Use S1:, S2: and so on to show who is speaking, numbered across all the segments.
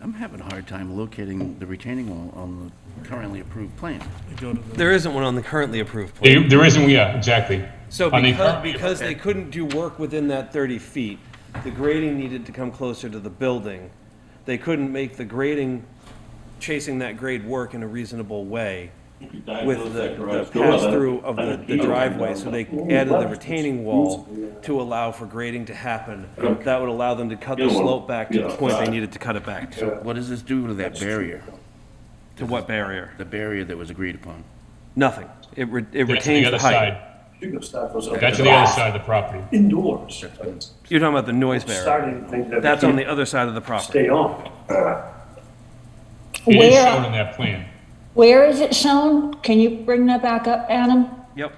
S1: I'm having a hard time locating the retaining wall on the currently approved plan.
S2: You go to the-
S3: There isn't one on the currently approved plan.
S4: There there isn't, yeah, exactly.
S3: So
S4: I mean,
S3: because, because they couldn't do work within that 30 feet, the grading needed to come closer to the building. They couldn't make the grading, chasing that grade work in a reasonable way with the the pass-through of the- the driveway, so they added the retaining wall to allow for grading to happen. That would allow them to cut the slope back to the point they needed to cut it back to.
S1: What does this do to that barrier,
S3: To what barrier?
S1: the barrier that was agreed upon?
S3: Nothing. It re- it
S4: That's the
S3: retains
S4: other
S3: the height.
S4: side.
S5: You're gonna start those.
S4: That's the other side of the property.
S5: Indoors.
S3: You're talking about the noise barrier.
S5: Starting things that.
S3: That's
S5: we
S3: on the
S5: can't
S3: other side of the property.
S5: Stay on.
S4: It is shown
S6: Where,
S4: in that plan.
S6: where is it shown? Can you bring that back up, Adam?
S3: Yep.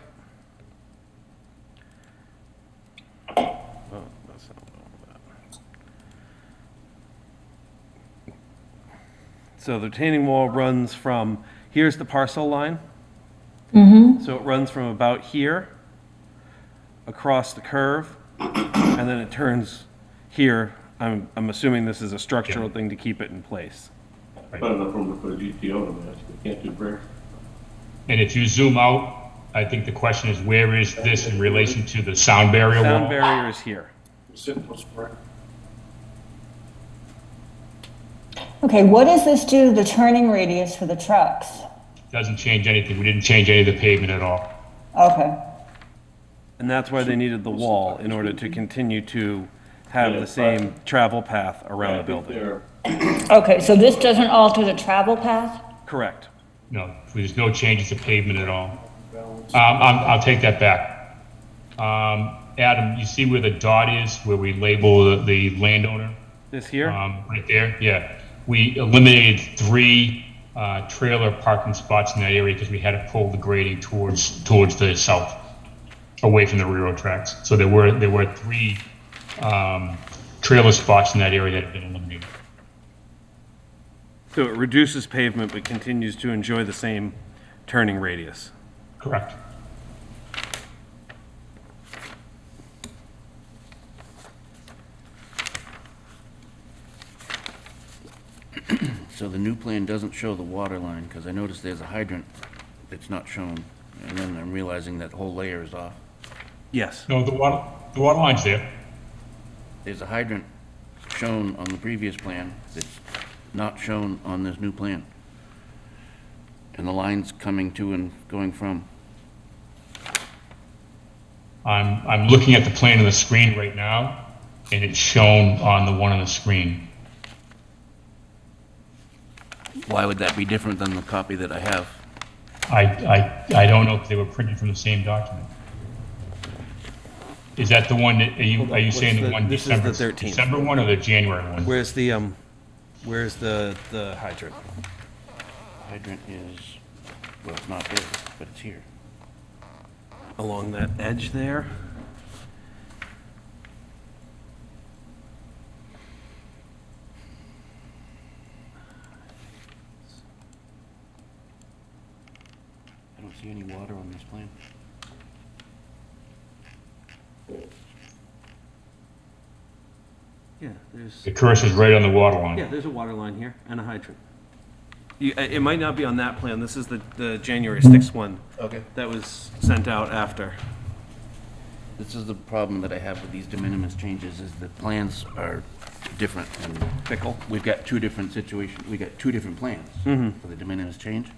S3: So the retaining wall runs from, here's the parcel line. So it runs from about here, across the curve, and then it turns here. I'm, I'm assuming this is a structural thing to keep it in place.
S7: Not enough room to put a GTO in there, so we can't do brick.
S4: And if you zoom out, I think the question is, where is this in relation to the sound barrier wall?
S3: Sound barrier is here.
S7: Simple spray.
S6: Okay, what does this do to the turning radius for the trucks?
S4: Doesn't change anything. We didn't change any of the pavement at all.
S6: Okay,
S3: And that's why they needed the wall, in order to continue to have the same travel path around the
S7: I think
S3: building.
S7: they're,
S6: okay, so this doesn't alter the travel path?
S3: Correct.
S4: No, there's no changes to pavement at all. Um, I'm, I'll take that back. Um, Adam, you see where the dot is, where we label the, the landowner?
S3: This here?
S4: Um, right there, yeah. We eliminated three, uh, trailer parking spots in that area because we had to pull the grading towards, towards the south, away from the railroad tracks. So there were, there were three, um, trailer spots in that area that have been eliminated.
S3: So it reduces pavement but continues to enjoy the same turning radius.
S4: Correct.
S1: So the new plan doesn't show the water line, because I noticed there's a hydrant that's not shown, and then I'm realizing that whole layer is off.
S3: Yes.
S4: No, the water, the water line's there.
S1: There's a hydrant shown on the previous plan that's not shown on this new plan. And the lines coming to and going from.
S4: I'm, I'm looking at the plane on the screen right now, and it's shown on the one on the screen.
S1: Why would that be different than the copy that I have?
S4: I, I, I don't know if they were printed from the same document. Is that the one that, are you, are you
S3: What's
S4: saying the
S3: the-
S4: one
S3: this is
S4: December?
S3: the 13th.
S4: December one or the January one?
S3: Where's the, um, where's the, the hydrant?
S1: Hydrant is, well, it's not there, but it's here.
S3: Along that edge there?
S1: I don't see any water on this plan.
S3: Yeah, there's,
S4: The cursor's right on the water line.
S3: there's a water line here and a hydrant. You, uh, it it might not be on that plan. This is the, the January 6th one
S1: Okay.
S3: that was sent out after.
S1: This is the problem that I have with these de minimis changes, is the plans are different, and
S3: Pickle.
S1: we've got two different situations, we got two different plans for the de minimis change.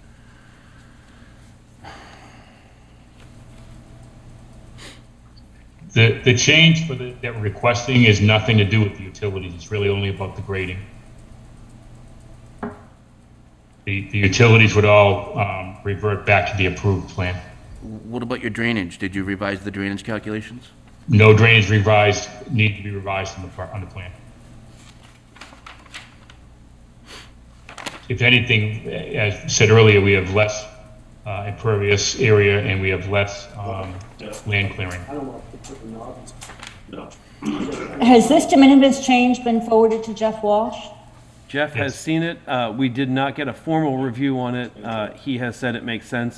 S4: The, the change for the, that we're requesting is nothing to do with the utilities, it's really only about the grading. The, the utilities would all, um, revert back to the approved plan.
S1: What about your drainage? Did you revise the drainage calculations?
S4: No drainage revised, need to be revised on the, par- on the plan. If anything, as said earlier, we have less uh, impervious area and we have less um, land clearing.
S5: I don't want to put the knobs.
S7: No.
S6: Has this de minimis change been forwarded to Jeff Walsh?
S3: Jeff has seen it. Uh, we did not get a formal review on it. Uh, he has said it makes sense.